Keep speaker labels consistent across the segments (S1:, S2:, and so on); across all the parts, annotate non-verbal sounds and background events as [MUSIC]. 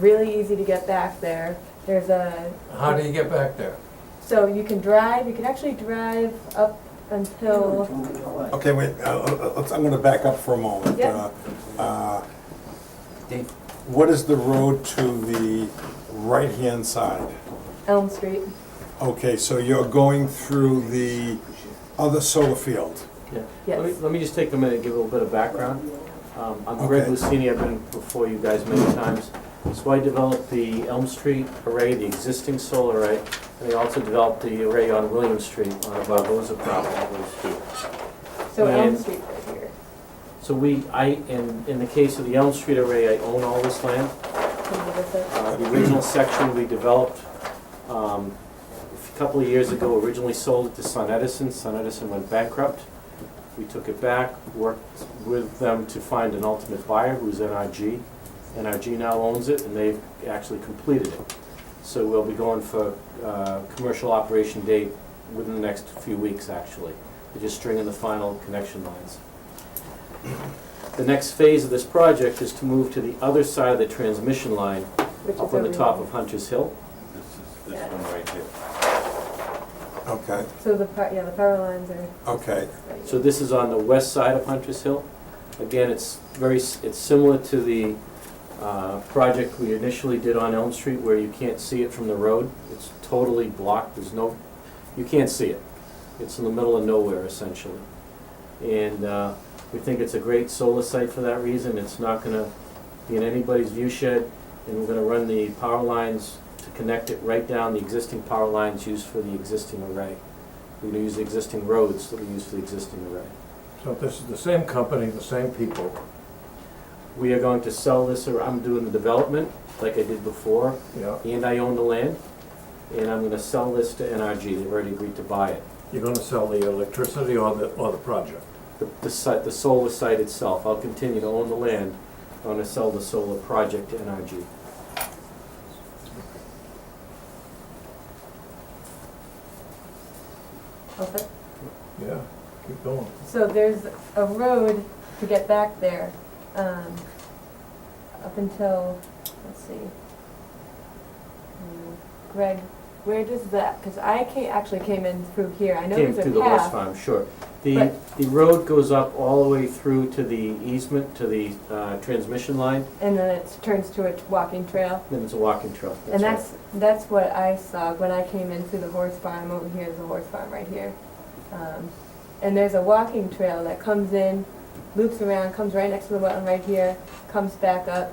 S1: really easy to get back there. There's a,
S2: How do you get back there?
S1: so you can drive, you can actually drive up until,
S3: Okay, wait, uh, uh, let's, I'm gonna back up for a moment.
S1: Yeah.
S3: Uh, uh, What is the road to the right-hand side?
S1: Elm Street.
S3: Okay, so you're going through the other solar field.
S4: Oh, Yeah.
S1: Yes.
S4: Let me, let me just take a minute and give a little bit of background. Um, I'm Greg
S3: Okay.
S4: Lucini, I've been before you guys many times. So I developed the Elm Street array, the existing solar array, and I also developed the array on William Street on a Barbosa property.
S1: So Elm
S4: And-
S1: Street right here.
S4: So we, I, in, in the case of the Elm Street array, I own all this land.
S1: Can you give us
S4: Uh, The original section we developed um, a couple of years ago, originally sold it to Sun Edison. Sun Edison went bankrupt. We took it back, worked with them to find an ultimate buyer, who's NRG. NRG now owns it, and they've actually completed it. So we'll be going for uh, commercial operation date within the next few weeks, actually. We're just stringing the final connection lines. The next phase of this project is to move to the other side of the transmission line,
S1: a- which is
S4: up on the
S1: over
S4: top
S1: here.
S4: of Hunter's Hill.
S1: this
S5: one right here.
S3: Okay,
S1: So the, par- yeah, the power lines are
S3: okay.
S1: right here.
S4: So this is on the west side of Hunter's Hill. Again, it's very, s- it's similar to the uh, project we initially did on Elm Street where you can't see it from the road. It's totally blocked, there's no, you can't see it. It's in the middle of nowhere essentially. And uh, we think it's a great solar site for that reason. It's not gonna be in anybody's view shed. And we're gonna run the power lines to connect it right down the existing power lines used for the existing array. We're gonna use the existing roads that we use for the existing array.
S2: So this is the same company, the same people.
S4: We are going to sell this, or I'm doing the development, like I did before,
S2: Yeah,
S4: and I own the land, and I'm gonna sell this to NRG, they've already agreed to buy it.
S2: you're gonna sell the electricity or the, or the project?
S4: The, the site, the solar site itself, I'll continue to own the land, I'm gonna sell the solar project to NRG.
S1: Okay.
S2: Yeah, keep going.
S1: So there's a road to get back there, um, up until, let's see. Hmm, Greg, where does that, because I ca- actually came in through here, I know
S4: Came
S1: there's a
S4: through the horse
S1: path.
S4: farm, sure. The, the road goes up all the way through to the easement, to the, uh, transmission line,
S1: And then it turns to a t- walking trail.
S4: then it's a walking trail.
S1: And
S4: right.
S1: that's, that's what I saw when I came in through the horse farm, over here is the horse farm right here. Um, And there's a walking trail that comes in, loops around, comes right next to the wetland right here, comes back up.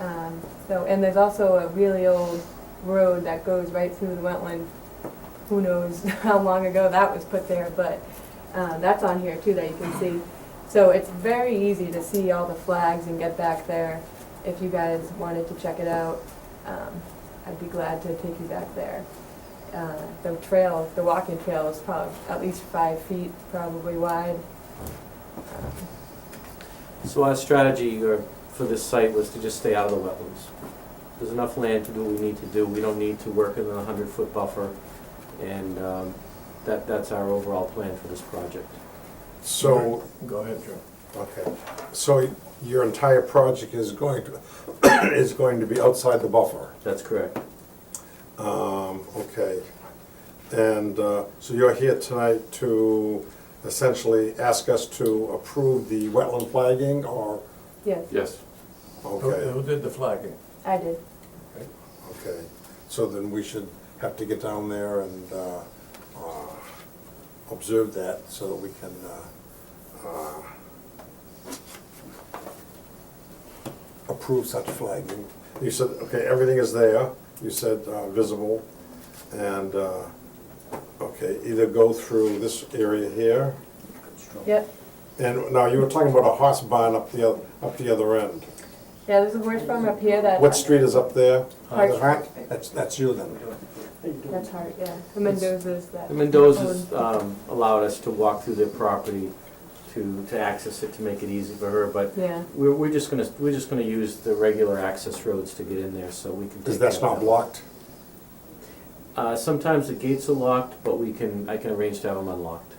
S1: Um, So, and there's also a really old road that goes right through the wetland. Who knows [LAUGHS] how long ago that was put there, but uh, that's on here too that you can see. So it's very easy to see all the flags and get back there. If you guys wanted to check it out, um, I'd be glad to take you back there. Uh, The trail, the walking trail is probably at least five feet, probably wide. Um,
S4: So our strategy uh, for this site was to just stay out of the wetlands. There's enough land to do what we need to do, we don't need to work in a hundred-foot buffer, and um, that, that's our overall plan for this project.
S3: So,
S2: Go ahead, Joe.
S3: okay, so your entire project is going to, [COUGHS] is going to be outside the buffer?
S4: That's correct.
S3: Um, okay. And, uh, so you're here tonight to essentially ask us to approve the wetland flagging or,
S1: Yes,
S5: Yes.
S2: Who,
S3: okay,
S2: who did the flagging?
S1: I did.
S3: okay. So then we should have to get down there and, uh, uh, observe that so that we can, uh, uh, approve such flagging. You said, okay, everything is there, you said, uh, visible, and, uh, okay, either go through this area here,
S4: Oh.
S1: Yep.
S3: And now you were talking about a horse barn up the, oth- up the other end.
S1: Yeah, there's a horse farm up here that.
S3: What street is up there?
S1: Hart.
S3: Hart? That's, that's you then.
S1: That's hard, yeah. The Mendoza's that.
S4: The Mendoza's um, allowed us to walk through their property to, to access it, to make it easy for her, but
S1: Yeah,
S4: we're, we're just gonna, we're just gonna use the regular access roads to get in there, so we can take.
S3: Because that's
S4: care
S3: not
S4: of that.
S3: blocked?
S4: Uh, Sometimes the gates are locked, but we can, I can arrange to have them unlocked.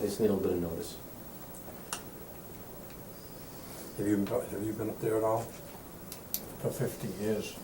S4: I just need a little bit of notice.
S3: Have you, have you been up there at all?
S2: For fifty years.